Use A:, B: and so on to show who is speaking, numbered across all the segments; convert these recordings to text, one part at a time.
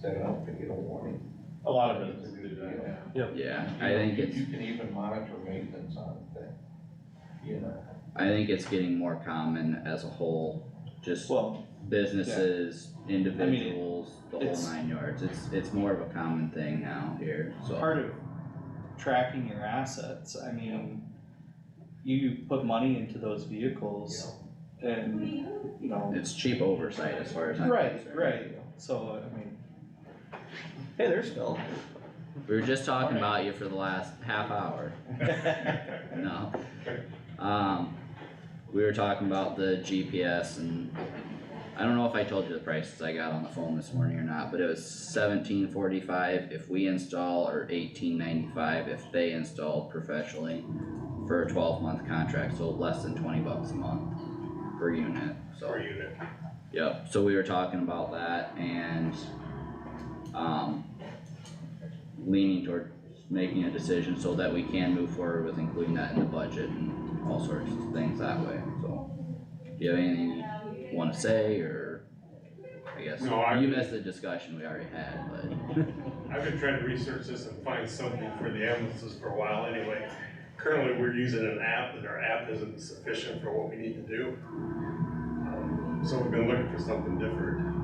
A: set it up to get a warning.
B: A lot of businesses do that.
C: Yeah, I think
A: You-
C: it's,
A: You can even monitor maintenance on a thing, you know?
C: I think it's getting more common as a whole, just
B: Well,
C: businesses, individuals, the whole nine yards, it's, it's more of a common thing now here, so.
D: part of tracking your assets, I mean, you put money into those vehicles and, you know,
C: It's cheap oversight as far as I'm
D: right,
C: concerned.
D: right, so, I mean.
E: Hey, there's Phil.
C: We were just talking about you for the last half hour, no. Um, we were talking about the GPS and I don't know if I told you the prices I got on the phone this morning or not, but it was seventeen forty-five if we install or eighteen ninety-five if they install professionally for a twelve-month contract, so less than twenty bucks a month per unit, so.
B: Per unit.
C: Yep, so we were talking about that and, um, leaning toward making a decision so that we can move forward with including that in the budget and all sorts of things that way, so. Do you have anything you wanna say, or, I guess,
B: No, I-
C: you missed the discussion we already had, but,
B: I've been trying to research this and find something for the ambulances for a while anyway. Currently, we're using an app, and our app isn't sufficient for what we need to do. Um, So we've been looking for something different.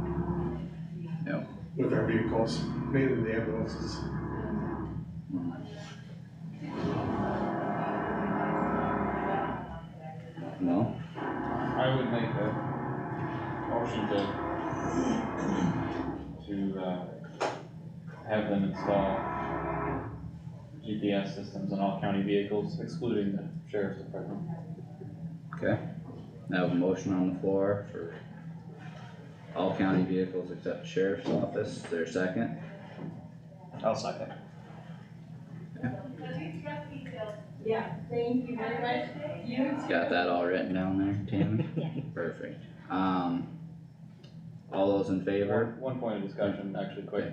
C: Yep.
B: With our vehicles, mainly the ambulances.
C: no?
F: I would make a motion to, to, uh, have them install GPS systems on all county vehicles excluding the sheriff's department.
C: I have a motion on the floor for all county vehicles except sheriff's office, Is there a second?
D: I'll second.
G: Yeah, thank you very much. You too.
C: Got that all written down there, Tammy? Perfect. Um, all those in favor?
F: One- One point of discussion, actually quick.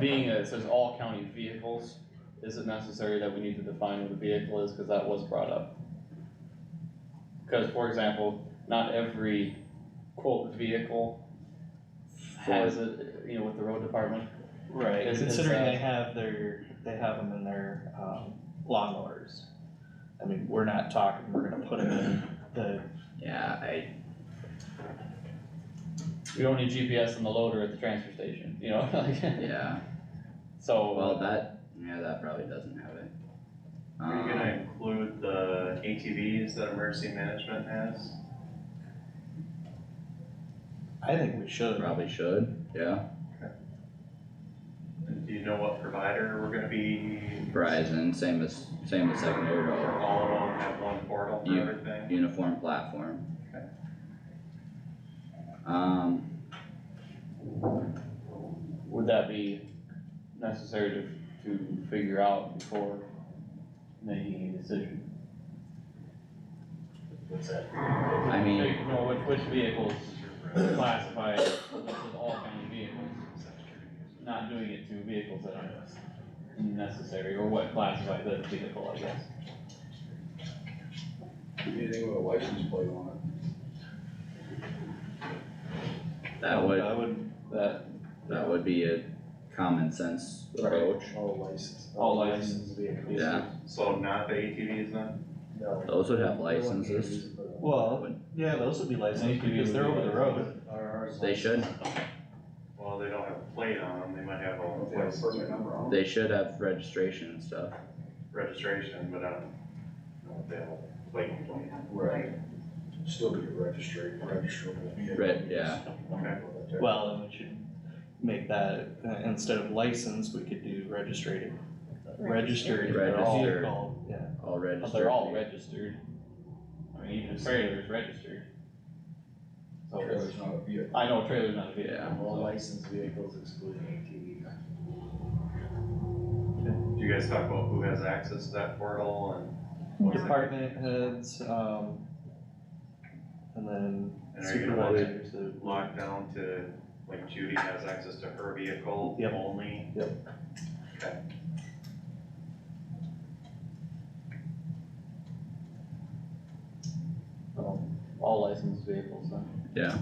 F: Being that it says all county vehicles, is it necessary that we need to define what a vehicle is, cause that was brought up? Cause for example, not every quote vehicle has it, you know, with the road department,
D: Right,
F: Is- is,
D: considering
F: uh,
D: they have their, they have them in their, um, lawnmowers. I mean, we're not talking, we're gonna put them in the,
C: Yeah, I,
F: we don't need GPS on the loader at the transfer station, you know, like,
C: yeah,
F: so,
C: well, that, yeah, that probably doesn't have it.
H: Are you
C: Um,
H: gonna include the ATVs that emergency management has?
D: I think we should.
C: Probably should, yeah,
H: And do you know what provider we're gonna be?
C: Verizon, same as, same as secondary
H: Or
C: road,
H: all of them have one portal for
C: You-
H: everything?
C: uniform platform. Um,
F: would that be necessary to, to figure out before making a decision?
H: What's that?
C: I mean,
F: Hey, No, which, which vehicles classify as all county vehicles, not doing it to vehicles that aren't necessary, or what classifies as a vehicle, I guess.
A: Anything with a license plate on
C: that would,
D: I would,
F: That,
C: that would be a common sense approach,
E: All licensed.
F: all licensed vehicles.
C: yeah,
H: So not the ATVs then?
C: those would have licenses.
D: well, yeah, those would be licensed because they're over the road.
C: They should,
H: Well, they don't have a plate on them, they might have
A: They have a
H: a
A: permit number on it.
C: they should have registration and stuff.
H: registration, but I don't know if they have a plate on them.
G: Right.
A: Still be registered, registerable vehicle.
C: Right, yeah.
D: Well, and we should make that, uh, instead of license, we could do registered, registered
C: Registered.
D: vehicle, yeah.
C: All
F: But
C: registered.
F: they're all registered. I mean, even a trailer is registered. So,
A: Trailer's not a vehicle.
F: I know a trailer's not a vehicle,
C: Yeah.
E: All
F: so-
E: licensed vehicles excluding
H: Do you guys talk about who has access to that portal and,
D: Department heads, um, and then
H: and are you gonna let it
D: supervisors, the-
H: lock down to, like Judy has access to her vehicle
D: Yep.
H: only?
F: All licensed vehicles, then.
C: Yeah,